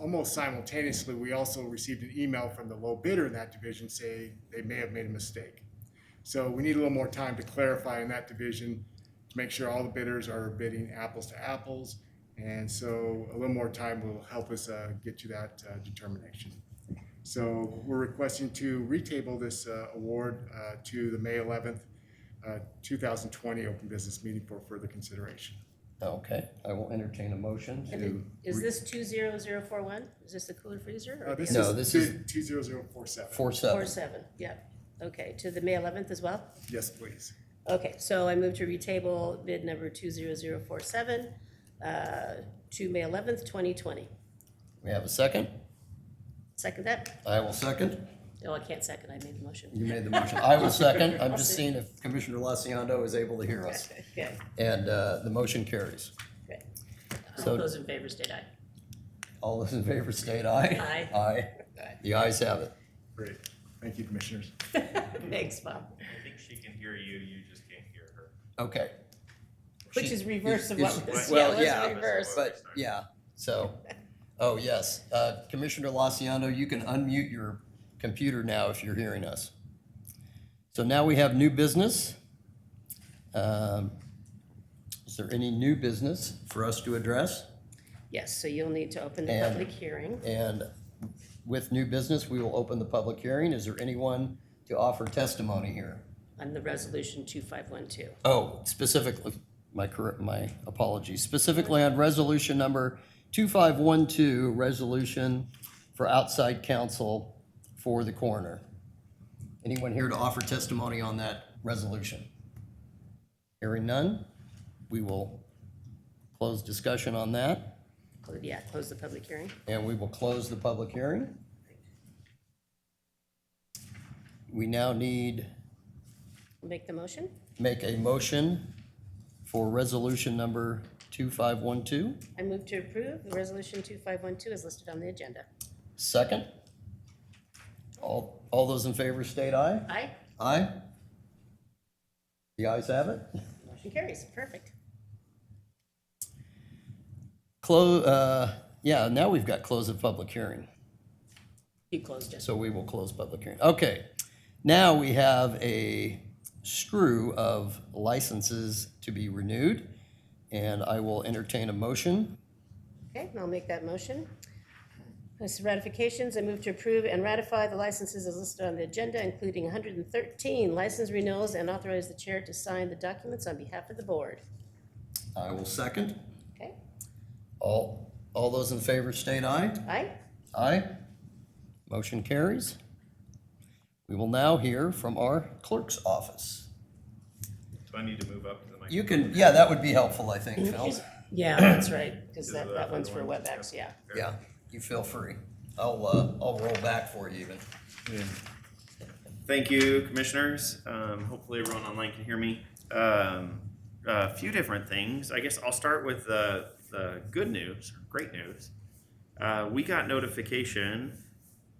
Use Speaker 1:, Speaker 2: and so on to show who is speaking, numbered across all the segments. Speaker 1: almost simultaneously, we also received an email from the low bidder in that division saying they may have made a mistake. So we need a little more time to clarify in that division, to make sure all the bidders are bidding apples to apples. And so a little more time will help us uh, get to that uh, determination. So we're requesting to retable this uh, award uh, to the May 11th, uh, 2020 open business meeting for further consideration.
Speaker 2: Okay, I will entertain a motion
Speaker 3: And it-
Speaker 2: to.
Speaker 3: Is this two zero zero four one? Is this the cooler freezer?
Speaker 1: Uh,
Speaker 3: or
Speaker 1: This
Speaker 2: No, this
Speaker 1: is
Speaker 2: is-
Speaker 1: two- 20047.
Speaker 2: Four
Speaker 3: Four
Speaker 2: seven.
Speaker 3: seven, yep. Okay, to the May eleventh as well?
Speaker 1: Yes, please.
Speaker 3: Okay, so I move to retable bid number two zero zero four seven, uh, to May eleventh, twenty twenty.
Speaker 2: We have a second?
Speaker 3: Second that?
Speaker 2: I will second.
Speaker 3: Oh, I can't second, I made the motion.
Speaker 2: You made the motion. I will second. I'm just seeing if Commissioner Laciando is able to hear us.
Speaker 3: Okay,
Speaker 2: And uh, the motion carries.
Speaker 3: okay.
Speaker 2: So-
Speaker 3: All those in favor state aye.
Speaker 2: All those in favor state aye.
Speaker 3: Aye.
Speaker 2: Aye. The ayes have it.
Speaker 1: Great. Thank you, commissioners.
Speaker 3: Thanks, Bob.
Speaker 4: I think she can hear you, you just can't hear her.
Speaker 2: Okay.
Speaker 3: Which
Speaker 2: She-
Speaker 3: is reverse of what
Speaker 2: is-
Speaker 3: was,
Speaker 4: is-
Speaker 3: yeah,
Speaker 2: well,
Speaker 3: it
Speaker 2: yeah,
Speaker 3: was reverse.
Speaker 2: But, yeah, so, oh, yes. Uh, Commissioner Laciando, you can unmute your computer now if you're hearing us. So now we have new business. Um, Is there any new business for us to address?
Speaker 3: Yes, so you'll need to open the
Speaker 2: And-
Speaker 3: public hearing.
Speaker 2: And with new business, we will open the public hearing. Is there anyone to offer testimony here?
Speaker 3: on the resolution 2512.
Speaker 2: Oh, specifically, my correct, my apologies, specifically on resolution number 2512, resolution for outside counsel for the coroner. Anyone here to offer testimony on that resolution? Hearing none, we will close discussion on that,
Speaker 3: Cl- Yeah, close the public hearing.
Speaker 2: and we will close the public hearing. We now need
Speaker 3: Make the motion.
Speaker 2: make a motion for resolution number 2512.
Speaker 3: I move to approve the resolution 2512 is listed on the agenda.
Speaker 2: Second. All, all those in favor state aye.
Speaker 3: Aye,
Speaker 2: Aye. The ayes have it.
Speaker 3: motion carries, perfect.
Speaker 2: Close, uh, yeah, now we've got close of public hearing.
Speaker 3: You closed it.
Speaker 2: So we will close public hearing. Okay. Now we have a screw of licenses to be renewed. And I will entertain a motion.
Speaker 3: Okay, I'll make that motion. This is ratifications, I move to approve and ratify the licenses as listed on the agenda, including 113 license renewals, and authorize the chair to sign the documents on behalf of the board.
Speaker 2: I will second.
Speaker 3: Okay,
Speaker 2: All, all those in favor state aye.
Speaker 3: aye?
Speaker 2: Aye. Motion carries. We will now hear from our clerk's office.
Speaker 4: Do I need to move up to the mic?
Speaker 2: You can, yeah, that would be helpful, I think, Phil.
Speaker 3: Yeah, that's right, because
Speaker 4: Is
Speaker 3: that,
Speaker 4: that
Speaker 3: that one's for
Speaker 4: other one?
Speaker 3: WebEx, yeah.
Speaker 2: Yeah, you feel free. I'll, uh, I'll roll back for you even.
Speaker 4: Thank you, commissioners. Um, hopefully everyone online can hear me. Um, a few different things. I guess I'll start with the, the good news, great news. Uh, we got notification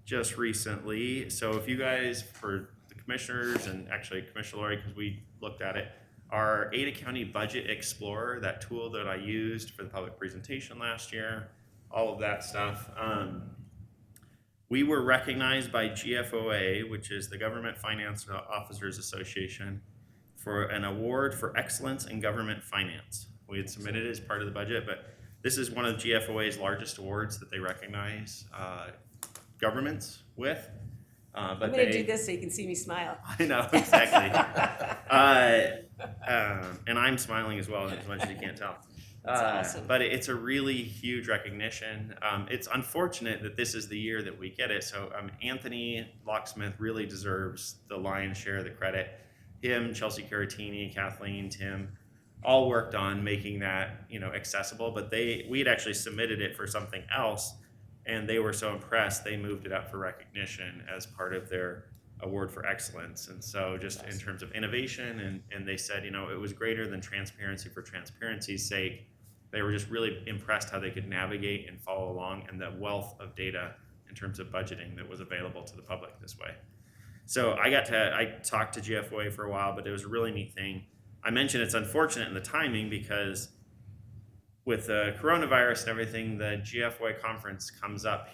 Speaker 4: just recently. So if you guys, for the commissioners and actually Commissioner Lori, because we looked at it, our Ada County Budget Explorer, that tool that I used for the public presentation last year, all of that stuff. Um, we were recognized by GFOA, which is the Government Finance Officers Association, for an award for excellence in government finance. We had submitted it as part of the budget, but this is one of GFOA's largest awards that they recognize uh, governments with. Uh, but
Speaker 3: I'm gonna
Speaker 4: they-
Speaker 3: do this so you can see me smile.
Speaker 4: I know exactly. uh, um, and I'm smiling as well, as much as you can't tell.
Speaker 3: That's
Speaker 4: Uh,
Speaker 3: awesome.
Speaker 4: But it's a really huge recognition. Um, it's unfortunate that this is the year that we get it. So um, Anthony Locksmith really deserves the lion's share of the credit. Him, Chelsea Caratini, Kathleen, Tim, all worked on making that you know accessible. But they we had actually submitted it for something else, and they were so impressed they moved it up for recognition as part of their award for excellence. And so just in terms of innovation and, and they said, you know, it was greater than transparency for transparency's sake. They were just really impressed how they could navigate and follow along and the wealth of data in terms of budgeting that was available to the public this way. So I got to I talked to GFOA for a while, but it was a really neat thing. I mentioned it's unfortunate in the timing because with the coronavirus and everything, the GFY conference comes up